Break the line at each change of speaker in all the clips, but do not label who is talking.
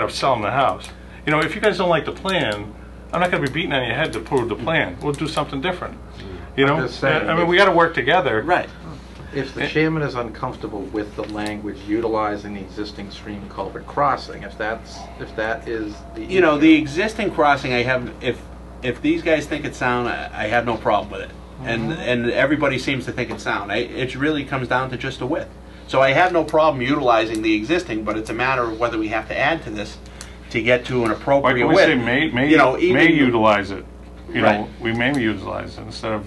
that are selling the house. You know, if you guys don't like the plan, I'm not gonna be beating on your head to prove the plan. We'll do something different.
Mm.
You know,
I'm just saying,
I mean, we gotta work together.
Right.
If
Eh.
the chairman is uncomfortable with the language utilizing the existing stream culvert crossing, if that's, if that is the.
You know, the
issue,
existing crossing, I have, if, if these guys think it's sound, I I have no problem with it. And, and everybody seems to think it's sound. I, it really comes down to just the width. So I have no problem utilizing the existing, but it's a matter of whether we have to add to this to get to an
Why
appropriate
can't we
width.
say may, may,
You know,
may
even-
utilize it? You
Right.
know, we may utilize it instead of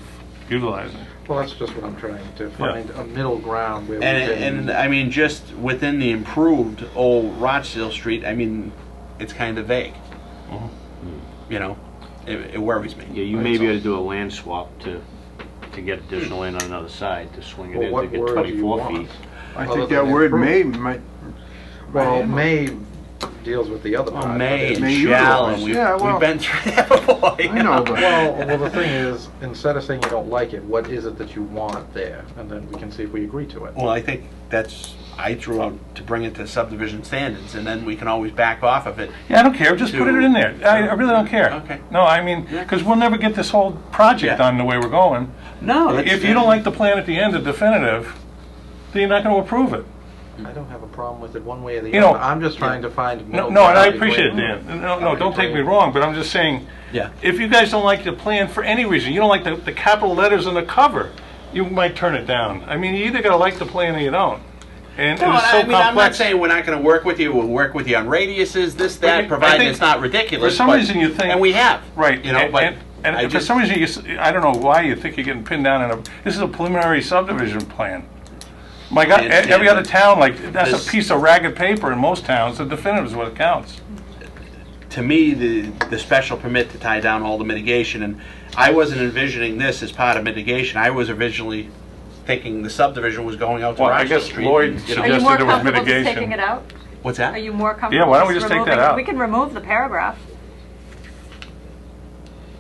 utilizing.
Well, that's just what I'm trying to find, a middle ground where we
And, and
can.
I mean, just within the improved old Rochdale Street, I mean, it's kind of vague.
Mm-hmm.
You know, it, it worries me.
Yeah, you may be able to do a land swap to, to get additional land on another side, to swing it
Well,
in to
what
get
word do you
24
want?
feet.
I
Other
think that
than
word may,
improve.
might,
Well, may deals with the other
Well,
part.
Oh, May and
May
shall,
utilize.
and we've,
Yeah,
we've
well-
been through that before. you
I know, but.
Well, well, the thing is, instead of saying you don't like it, what is it that you want there? And then we can see if we agree to it.
Well, I think that's, I drew out to bring it to subdivision standards, and then we can always back off of it.
Yeah, I don't care, just put it in there. I, I really don't care.
Okay.
No, I mean,
Yeah.
because we'll never get this whole project
Yeah.
done the way we're going.
No, that's.
If you don't like the plan at the end, the definitive, then you're not going to approve it.
I don't have a problem with it one way or the
You know-
other. I'm just trying to find a
No,
middle ground.
no, and I
where-
appreciate it, Dan. No, no, don't take me wrong, but I'm just saying,
Yeah.
if you guys don't like the plan for any reason, you don't like the, the capital letters on the cover, you might turn it down. I mean, you either got to like the plan or you don't. And
No,
and it's so
I mean, I'm not
complex.
saying we're not gonna work with you, we'll work with you on radiuses, this,
I
that,
think-
provided
I
it's
think
not ridiculous.
For some
but-
reason, you think.
And we have.
Right.
You know,
and-
but.
and-
I
And for
just-
some reason, you, s- I don't know why you think you're getting pinned down in a, this is a preliminary subdivision plan. My God, e-
understand,
every other
but
town, like, that's
this-
a piece of ragged paper in most towns, the definitive is what counts.
to me, the, the special permit to tie down all the mitigation, and I wasn't envisioning this as part of mitigation. I was originally thinking the subdivision was going out to
Well, I
Rochester
guess
Street.
Lloyd
you know.
Are you
suggested
more
it was
comfortable just taking
mitigation.
it out?
What's
Are
that?
you more
Yeah,
comfortable?
why don't we just take
removing-
that out?
We can remove the paragraph.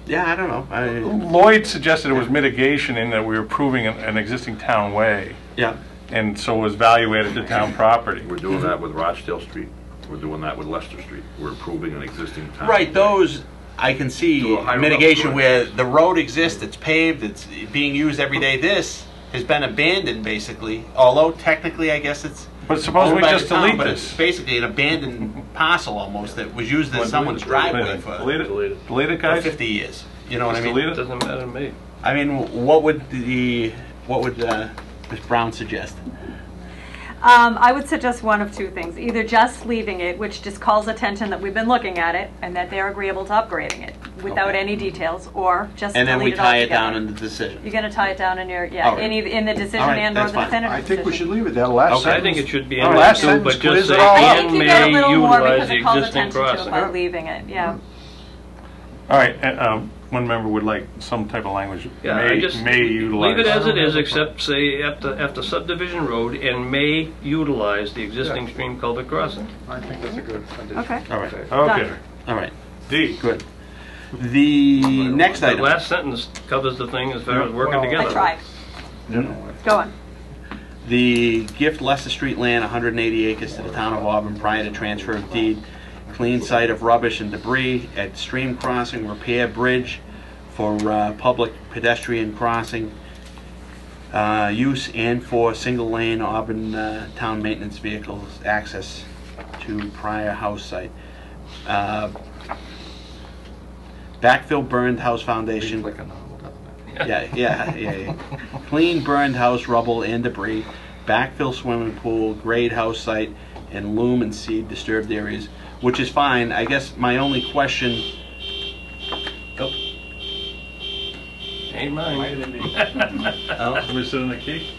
Yeah, I don't know. I,
Lloyd suggested it was mitigation in that we were approving an, an existing town way,
yeah,
and so was value added to town property.
We're doing that with Rochdale Street, we're doing that with Leicester Street, we're improving an existing
Uh,
town.
right. Those I can see
Do a high
mitigation
level.
where the road exists, it's paved, it's being used every day. This has been abandoned basically, although technically, I guess it's.
But suppose
owned
we
by the
just
town,
delete
but
this.
it's basically an abandoned parcel almost that was used as someone's driveway for
Delete it,
Delete it.
delete it,
for
guys, just
50 years. You know what I mean?
delete it.
Doesn't matter to me.
I mean, what would the, what would uh, Ms. Brown suggest?
Um, I would suggest one of two things, either just leaving it, which just calls attention that we've been looking at it and that they're agreeable to upgrading it without
Okay.
any details, or just
And then we
delete it
tie it down
altogether.
in the decision.
You're gonna tie it down in your, yeah,
All right.
in either, in the decision
All right,
and or
that's
the
fine.
I
definitive
think we should
decision.
leave it, that last
Okay.
I
sentence.
think it should be
Our
in there
last
too,
sentence
but
clears
just
it
say
all
I
up.
and
think you get a
may
little more
utilize
because
the
it calls
existing
attention to it
crossing.
by leaving it, yeah.
All right, and, um, one member would like some type of language,
Yeah, I
may,
just
may utilize.
Leave it as it is, except say after, after subdivision road and may utilize the existing stream culvert crossing.
I think that's a good addition.
Okay.
All right, okay.
Done.
All right,
D,
good. The next
The
item,
last sentence covers the thing as far as working
Well-
together.
I tried. Go on.
the gift Leicester Street land, 180 acres to the town of Auburn prior to transfer of deed, clean site of rubbish and debris at stream crossing, repair bridge for uh, public pedestrian crossing uh, use and for single lane Auburn uh, town maintenance vehicles access to prior house site. Uh, Backfill burned house foundation.
Like a novel, doesn't it?
Yeah, yeah, yeah, yeah. Clean burned house rubble and debris, backfill swimming pool, grade house site, and loom and seed disturbed areas, which is fine. I guess my only question. Oh,
Ain't mine.
oh,
we sit in the key?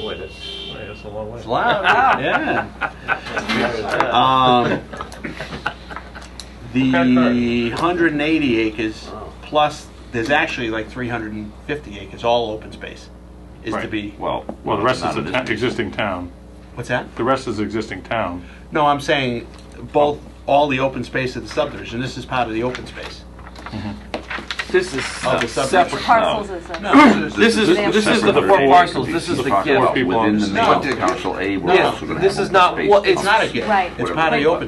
Boy, that's,
Yeah, that's a long way.
it's loud. yeah. Um, the 180 acres plus there's actually like 350 acres, all open space, is to
Right.
be.
Well, well, the rest is
not
the
in
ta- existing town,
What's that?
the rest is existing town.
No, I'm saying both, all the open space of the subdivision, this is part of the open space.
This is
Oh, the
se-
subdivision.
separate.
Parcels is a.
This is, this is the four parcels, this is the gift.
people on
Within the
No.
main council, A, we're
No,
also gonna have
this is
open
not,
space
well, it's not a
conversation.
gift.
Right.
It's part of the open